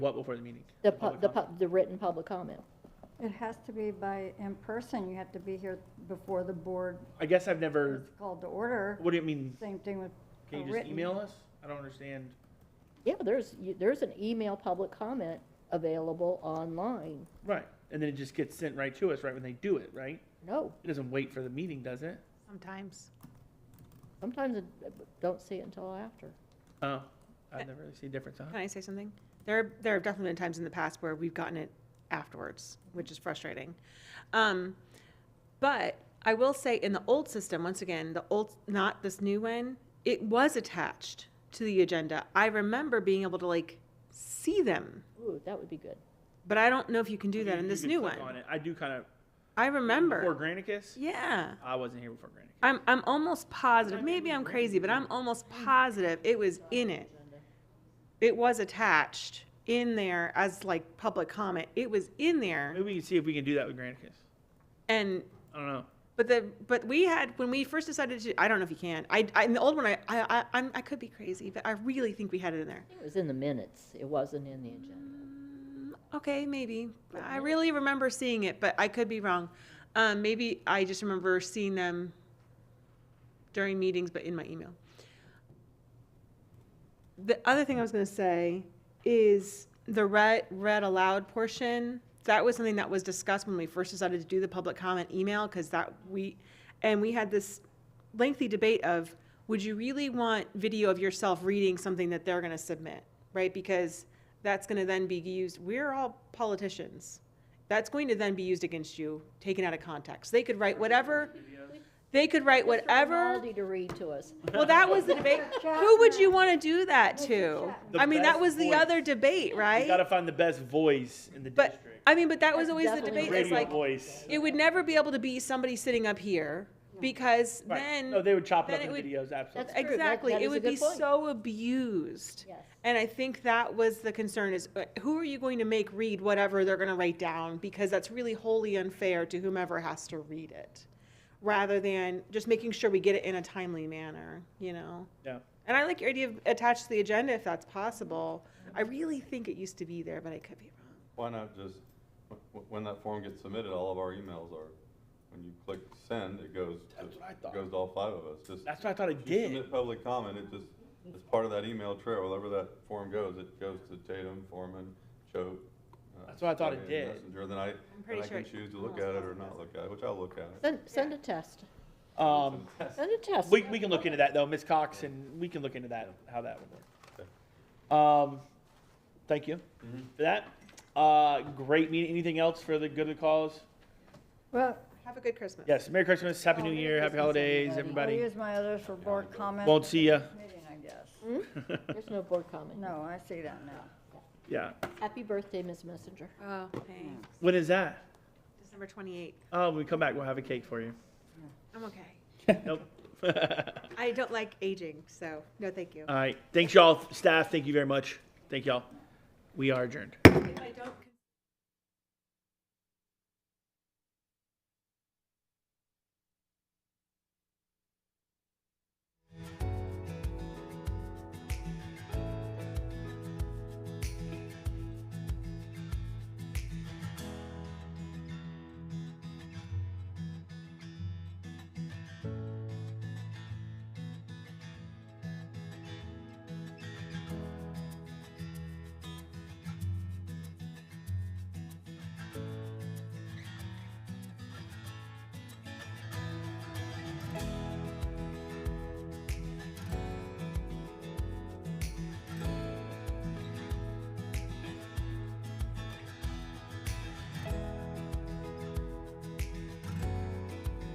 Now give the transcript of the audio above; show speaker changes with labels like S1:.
S1: What before the meeting?
S2: The, pu-
S1: public
S2: the,
S1: comment?
S2: pu- the written public comment.
S3: It has to be by, in person, you have to be here before the board
S1: I guess I've never,
S3: is called to order.
S1: what do you mean?
S3: Same thing with a
S1: Can you just
S3: written.
S1: email us? I don't understand.
S2: Yeah, there's, you- there's an email public comment available online.
S1: Right. And then it just gets sent right to us right when they do it, right?
S2: No,
S1: It doesn't wait for the meeting, does it?
S4: Sometimes.
S2: sometimes I don't see it until after.
S1: Oh, I've never really seen a difference, huh?
S4: Can Uh, I say something? There, there have definitely been times in the past where we've gotten it afterwards, which is frustrating. Um, but I will say in the old system, once again, the old, not this new one, it was attached to the agenda. I remember being able to like see them,
S2: Ooh, that would be good.
S4: but I don't know if you can do
S1: You-
S4: that in
S1: you
S4: this
S1: can
S4: new
S1: click on
S4: one.
S1: it. I do kind of.
S4: I
S1: Before
S4: remember.
S1: Granicus?
S4: Yeah.
S1: I wasn't here before Granicus.
S4: I'm, I'm almost positive, maybe I'm crazy, but I'm almost
S1: Mm-hmm.
S4: positive it was in it. It was attached in there as like public comment. It was in there
S1: Maybe we can see if we can do that with Granicus.
S4: and,
S1: I don't know.
S4: but the, but we had, when we first decided to, I don't know if you can. I, I, in the old one, I, I, I- I'm, I could be crazy, but I really think we had it in there.
S2: It was in the minutes, it wasn't in the agenda.
S4: Mm, Okay, maybe. I really remember seeing it, but I could be wrong. Um, maybe I just remember seeing them during meetings, but in my email. The other thing I was gonna say is the read, read aloud portion. That was something that was discussed when we first decided to do the public comment email, because that we, and we had this lengthy debate of, would you really want video of yourself reading something that they're gonna submit, right? Because that's going to then be used. We're all politicians. That's going to then be used against you, taken out of context. They could write whatever. They could write whatever.
S2: Aldi to read to us.
S4: Well, that was the debate. Who would you want to do that to?
S3: Chapman.
S1: The
S4: I mean, that
S1: best
S4: was the
S1: voice.
S4: other debate,
S1: You gotta
S4: right?
S1: find the best voice in the
S4: But
S1: district.
S4: I mean, but that was
S2: That's
S4: always the
S2: definitely
S4: debate.
S2: the
S4: It's
S1: Radio
S4: like
S1: voice.
S4: it would never be able to be somebody sitting up here because
S1: Right.
S4: then
S1: No, they would chop it up
S4: then
S1: into
S4: it
S1: videos, absolutely.
S2: That's true. That-
S4: exactly
S2: that is
S4: it
S2: a
S4: would
S2: good
S4: be
S2: point.
S4: so abused.
S2: Yes.
S4: And I think that was the concern is uh, who are you going to make read whatever they're going to write down? Because that's really wholly unfair to whomever has to read it rather than just making sure we get it in a timely manner, you know?
S1: Yeah.
S4: And I like your idea of attached to the agenda if that's possible. I really think it used to be there, but I could be wrong.
S5: Why not just, wh- wh- when that form gets submitted, all of our emails are, when you click send, it goes, to-
S1: That's what I thought.
S5: it goes to all five of us, just.
S1: That's what I thought it
S5: if you
S1: did.
S5: Submit public comment, it just, it's part of that email trail, wherever that form goes, it goes to Tatum, Foreman, Choate. uh,
S1: That's what I thought it
S5: Scully, and
S1: did.
S5: Messenger, then I, then
S4: pretty
S5: I
S4: sure
S5: can
S4: it
S5: choose to look
S4: almost
S5: at it or
S4: doesn't,
S5: not
S4: does
S5: look at it, which I'll look at it.
S2: Send, send a test,
S1: Um,
S2: send a test.
S1: we, we can look into that though, Ms. Cox, and we can look into that, how that would work. Um, thank you for that. Uh, great meeting. Anything else for the good of the cause?
S3: Well,
S4: Have a good Christmas.
S1: Yes, Merry Christmas, Happy
S3: Oh,
S1: New
S3: Merry
S1: Year, Happy
S2: Christmas,
S1: Holidays,
S3: I'll
S1: everybody.
S3: use my others for board comment.
S1: Won't see ya.
S3: Meeting, I guess.
S2: There's no board comment.
S3: No, I see that now.
S1: Yeah.
S2: Happy birthday, Ms. Messenger.
S4: Oh, thanks.
S1: When is that?
S4: December 28th.
S1: Oh, when we come back, we'll have a cake for you.
S4: I'm okay.
S1: Nope.
S4: I don't like aging, so no,
S1: Um,
S4: thank you.
S1: All right. Thanks, y'all. Staff, thank you very much. Thank y'all. We are adjourned.
S4: I don't